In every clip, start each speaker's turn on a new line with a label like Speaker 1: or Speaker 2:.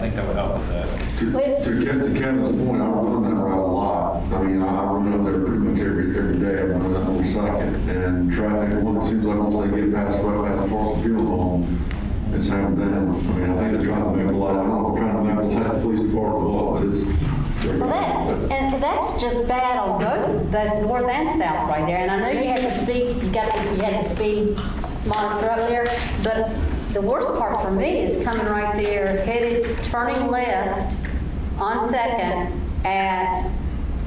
Speaker 1: think that would help with that.
Speaker 2: To
Speaker 3: Wait.
Speaker 2: to get to Kevin's point, I run that route a lot. I mean, I I run up there pretty much every, every day, I run that whole second. And traffic, one, it seems like once they get past, right past Paulson Fuel Home, it's happened then. I mean, I think they're trying to make a lot, I don't know, if they're trying to make the Taft Police Department a lot, but it's.
Speaker 3: Well, that, and that's just bad on both, both north and south right there, and I know you had to speed, you got, you had to speed monitor up there, but the worst part for me is coming right there, headed, turning left on Second at,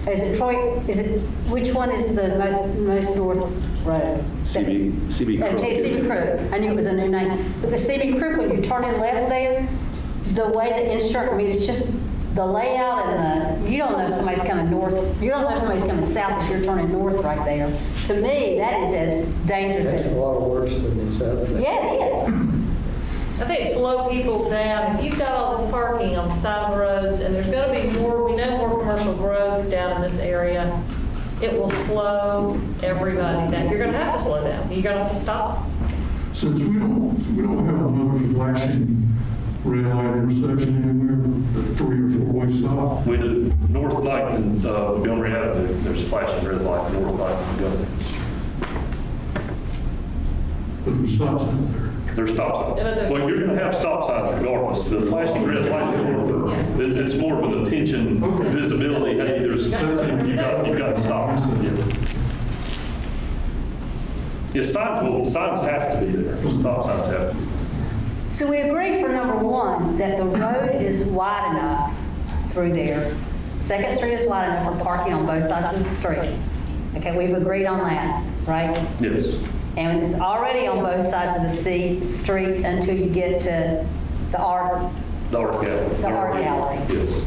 Speaker 3: is it Troy, is it, which one is the most, most north road?
Speaker 4: CB CB
Speaker 3: Oh,
Speaker 4: Crook.
Speaker 3: CB
Speaker 4: is-
Speaker 3: Crook, I knew it was a new name, but the CB Crook, when you turn in left there, the way the insurance, I mean, it's just the layout and the, you don't know if somebody's coming north, you don't know if somebody's coming south if you're turning north right there. To me, that is as dangerous
Speaker 5: That's a
Speaker 3: as,
Speaker 5: lot worse than these other things.
Speaker 3: yeah, it is.
Speaker 6: I think slow people down. If you've got all this parking on the side of roads, and there's gonna be more, we know more commercial growth down in this area, it will slow everybody down. You're gonna have to slow down. You're gonna have to stop.
Speaker 7: Since we don't, we don't have another flashing red light intersection anywhere, the three or four way stop.
Speaker 8: With the north light and uh, Montgomery Avenue, there's a flashing red light, north light and Montgomery.
Speaker 7: But the stop's out there.
Speaker 8: There's stop
Speaker 6: Yeah, but
Speaker 8: signs.
Speaker 6: there's-
Speaker 8: Well, you're going to have stop signs regardless. The flashing red light is more for, it's- it's more of an attention visibility. Hey, there's, you got, you got to stop. Yeah. Yeah, signs will, signs have to be there. Stop signs have to be.
Speaker 3: So we agree for number one, that the road is wide enough through there. Second Street is wide enough for parking on both sides of the street. Okay, we've agreed on that, right?
Speaker 8: Yes.
Speaker 3: And it's already on both sides of the sea, street until you get to the art.
Speaker 8: The art gallery.
Speaker 3: The art gallery.
Speaker 8: Yes.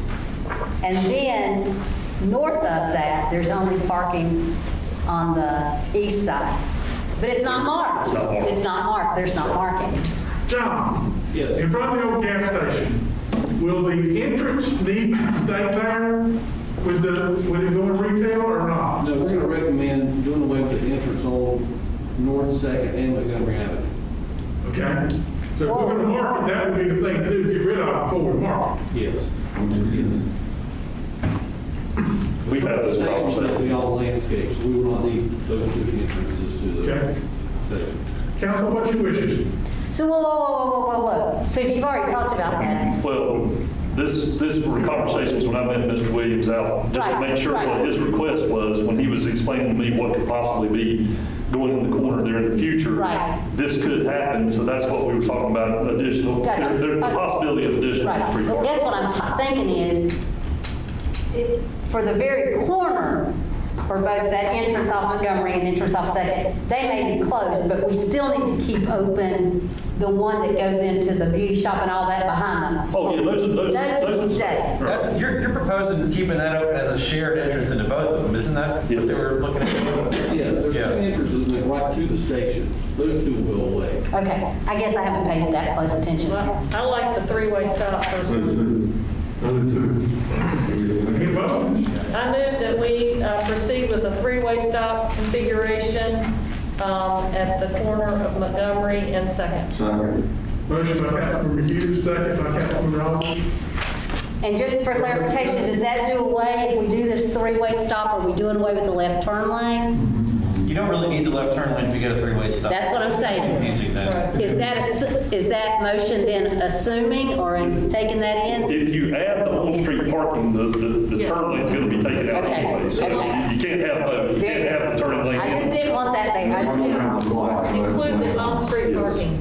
Speaker 3: And then north of that, there's only parking on the east side. But it's not marked.
Speaker 8: It's not marked.
Speaker 3: It's not marked. There's not marking.
Speaker 9: John? Yes. In front of the old gas station, will the entrance need to stay there with the, with it going retail or not?
Speaker 10: No, we're going to recommend doing away with the entrance on North Second and Montgomery Avenue.
Speaker 9: Okay? So if we're gonna market, that would be the thing to do, get rid of it before we market.
Speaker 10: Yes.
Speaker 8: We've had this
Speaker 10: Stations
Speaker 8: problem.
Speaker 10: will be all landscapes, we will not need those two entrances to the
Speaker 9: Okay.
Speaker 10: station.
Speaker 9: Council, what you wishes?
Speaker 3: So whoa, whoa, whoa, whoa, whoa, whoa. So if you've already talked about that,
Speaker 8: Well, this, this were conversations when I met Mr. Williams out, just to
Speaker 3: Right,
Speaker 8: make sure
Speaker 3: right.
Speaker 8: what his request was, when he was explaining to me what could possibly be going in the corner there in the future.
Speaker 3: Right.
Speaker 8: This could happen, so that's what we were talking about, additional,
Speaker 3: Gotcha.
Speaker 8: there- there's the
Speaker 3: Okay.
Speaker 8: possibility of additional
Speaker 3: right.
Speaker 8: free
Speaker 3: I
Speaker 8: parking.
Speaker 3: guess what I'm t- thinking is, it- for the very corner, for both that entrance off Montgomery and entrance off Second, they may be closed, but we still need to keep open the one that goes into the beauty shop and all that behind them.
Speaker 8: Oh, yeah, those are, those
Speaker 3: Those
Speaker 8: are.
Speaker 3: would
Speaker 8: those are-
Speaker 3: stay.
Speaker 8: Right.
Speaker 1: That's, you're, you're proposing keeping that open as a shared entrance into both of them, isn't that what they were looking at?
Speaker 10: Yeah, there's two
Speaker 1: Yeah.
Speaker 10: entrances that go right to the station, those two will go away.
Speaker 3: Okay, I guess I haven't paid that close attention.
Speaker 6: Well, I like the three-way stop for
Speaker 2: Other two. Other two.
Speaker 9: Any motion?
Speaker 6: I move that we uh, proceed with a three-way stop configuration um, at the corner of Montgomery and Second.
Speaker 2: Second.
Speaker 9: Motion by Councilmember Hughes, second by Councilmember Robinson.
Speaker 3: And just for clarification, does that do away, if we do this three-way stop, are we doing away with the left turn lane?
Speaker 1: You don't really need the left turn lane if you get a three-way stop.
Speaker 3: That's what I'm saying.
Speaker 1: Using that.
Speaker 3: Is that, ass- is that motion then assuming or in- taking that in?
Speaker 8: If you add the on-street parking, the, the, the
Speaker 6: Yeah.
Speaker 8: turn lane's gonna be taken out
Speaker 3: Okay,
Speaker 8: anyway. So you
Speaker 3: okay.
Speaker 8: you can't have both, you can't have the turn lane.
Speaker 3: I
Speaker 8: and-
Speaker 3: just didn't want that there.
Speaker 2: I don't
Speaker 3: I-
Speaker 2: have the light. so that's-
Speaker 6: Include the on-street parking.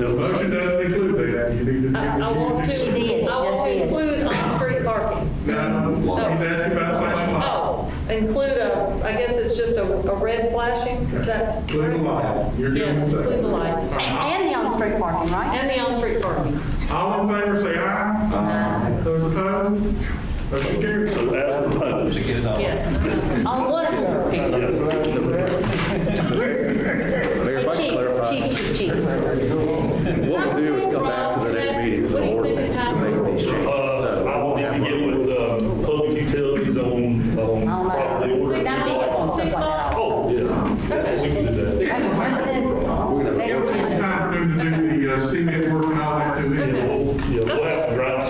Speaker 8: Yeah.
Speaker 9: Motion doesn't include that. You need to give
Speaker 6: I I want to.
Speaker 9: us
Speaker 3: She
Speaker 9: your...
Speaker 3: did, she
Speaker 6: I
Speaker 3: just
Speaker 6: want
Speaker 3: did.
Speaker 6: to include on-street parking.
Speaker 9: No, he's asking about flashing light.
Speaker 6: Oh, include a, I guess it's just a, a red flashing, is that?
Speaker 9: Include the light. You're doing
Speaker 6: Yes,
Speaker 9: second.
Speaker 6: include the light.
Speaker 3: And the on-street parking, right?
Speaker 6: And the on-street parking.
Speaker 9: All in favor, say aye. Aye. Those opposed? Motion carries.
Speaker 8: So as proposed.
Speaker 1: To get it on.
Speaker 6: Yes.
Speaker 3: On one of your pictures.
Speaker 4: Mayor, if I could clarify,
Speaker 3: Hey, Chief, Chief, Chief, Chief.
Speaker 4: what we'll do is come back to the next
Speaker 8: Uh, Oh,
Speaker 9: uh,